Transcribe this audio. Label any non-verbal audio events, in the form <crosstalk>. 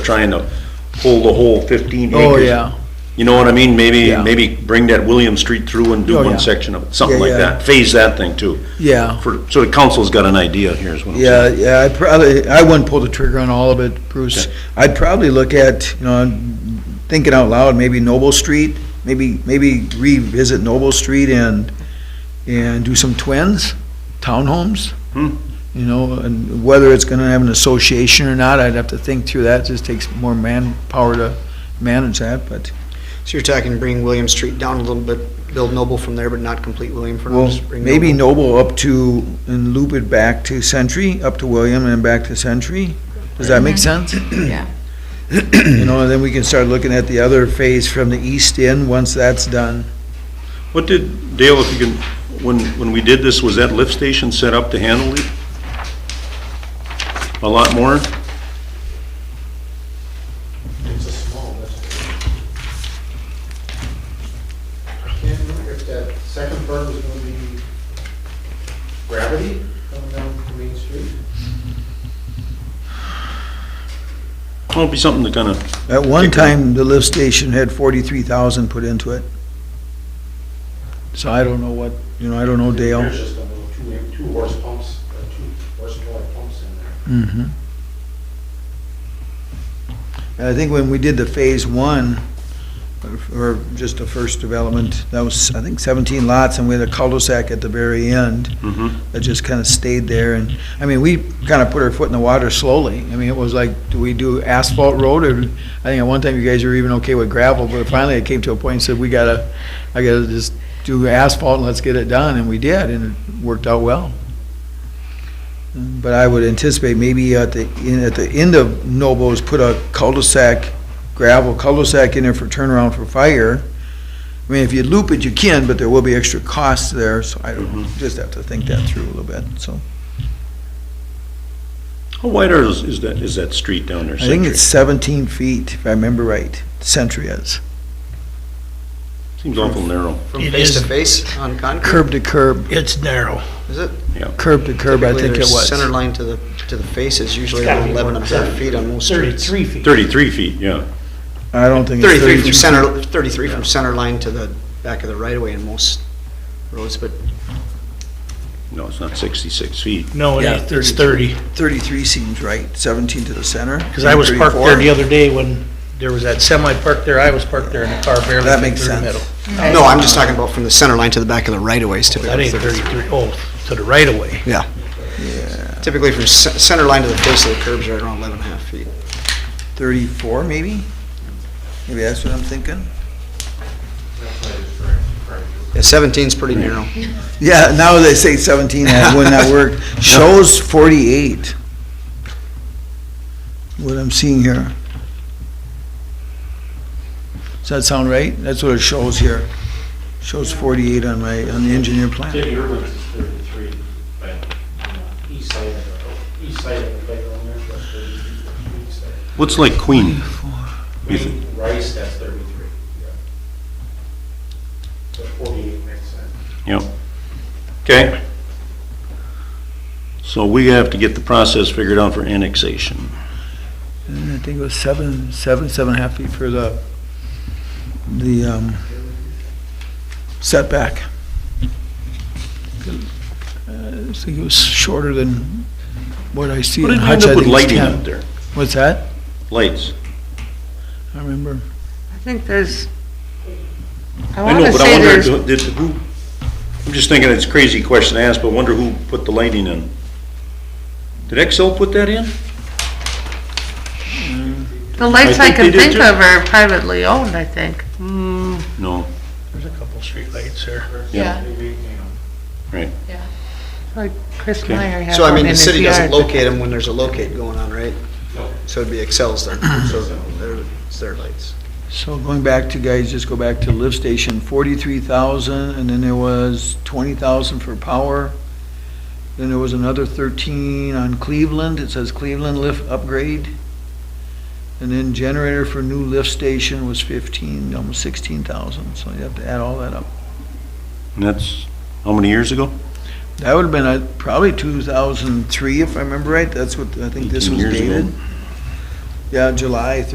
trying to pull the whole fifteen acres. Oh, yeah. You know what I mean? Maybe, Yeah. maybe bring that William Street through and Oh, do yeah. one section of it, something Yeah, like yeah. that. Phase that thing too. Yeah. For, so the council's got an idea here is what I'm Yeah, saying. yeah, I probably, I wouldn't pull the trigger on all of it, Bruce. Okay. I'd probably look at, you know, thinking out loud, maybe Noble Street, maybe, maybe revisit Noble Street and, and do some twins, townhomes. Hmm. You know, and whether it's gonna have an association or not, I'd have to think through that, It just takes more manpower to manage that, but, So you're talking bring William Street down a little bit, build Noble from there, but not complete William for now? well, just bring maybe Noble up to, and loop it back to Century, up to William and back to Century. Does that make sense? <clears throat> Yeah, You know, and then we can start looking at the other phase from the east end, once that's done. What did, Dale, if you can, when, when we did this, was that lift station set up to handle it? A lot more? It's a small lift. I can't remember if that second berm was gonna be gravity coming down from Main Street. Well, it'd be something to kind of, At one time, the lift station had forty-three thousand put into it. So I don't know what, you know, I don't know Dale. There's just a little two, two horse pumps, uh, two horsepower pumps in there. Mhm. And I think when we did the phase one, or- or just the first development, that was, I think, seventeen lots, and we had a cul-de-sac at the very end. mhm. that just kind of stayed there, and, I mean, we kind of put our foot in the water slowly. I mean, it was like, do we do asphalt road, or, I think at one time you guys were even okay with gravel, but finally it came to a point and said, we gotta, I gotta just do asphalt and let's get it done, and we did, and it worked out well. But I would anticipate maybe at the, in- at the end of Nobles, put a cul-de-sac, gravel cul-de-sac in there for turnaround for fire. I mean, if you loop it, you can, but there will be extra costs there, so I don't, just have to think that through a little bit, so. How wide are those- is that, is that street down there? I think Century? it's seventeen feet, if I remember right, Century is, Seems awful narrow. From It face to is- face on concrete, curb to curb, It's narrow. is it? curb to curb, I Typically, think it their Center was. line to the, to the face is usually It's gotta around be eleven and a more. half feet on most streets. Thirty-three feet. Thirty-three feet, yeah. I don't think it's Thirty-three thirty-two from feet. center, thirty-three from center line to the back of the right of way in most roads, but No, it's not sixty-six feet. No, it Yeah, ain't. it's thirty, Thirty-three seems right, seventeen to the center. because I was parked 34. there the other day when there was that semi parked there, I was parked there and the car barely That fit makes through the sense. middle. No, I'm just talking about from the center line to the back of the right of ways That typically. ain't thirty-three, oh, to the right of way. Yeah. Typically from ce- center line to the face of the curbs right around eleven and a half feet. Thirty-four, maybe? Maybe that's what I'm thinking? That's why it's correct, correct. Yeah, seventeen's pretty narrow. Yeah, now they say seventeen, that wouldn't <laughs> that work? Shows forty-eight. What I'm seeing here. Does that sound right? That's what it shows here. Shows forty-eight on my, on the engineer plan. City Urban is thirty-three, but on the east side of the, east side of the playground there, that's thirty-three, east side. What's like Queen? You th- Green rice, that's thirty-three. So forty-eight makes sense. Yep. Okay. So we have to get the process figured out for annexation. And I think it was seven, seven, seven and a half feet for the, the, um, setback. Uh, I think it was shorter than what I see What in did we Hutch, end I up with think it's lighting 10. up there? What's that? Lights. I remember. I think there's, I I want know, to but I say wonder, there's, do- did, who, I'm just thinking it's a crazy question to ask, but wonder who put the lighting in? Did Excel put that in? the lights I I think they can did think too. of are privately owned, I think. Mm, No. There's a couple streetlights there. Yeah. Maybe, you know, Like Chris Okay. Meyer had So I one mean, in the his city doesn't yard. locate them when there's a locate going on, right? No. So it'd be Excel's there, so they're, it's their lights. So going back to, guys, just go back to lift station, forty-three thousand, and then there was twenty thousand for power. Then there was another thirteen on Cleveland, it says Cleveland lift upgrade. And then generator for new lift station was fifteen, almost sixteen thousand, so you have to add all that up. And that's, how many years ago? That would've been uh, probably two thousand three, if I remember right, that's what, I think this 18 was years ago. dated. Yeah, July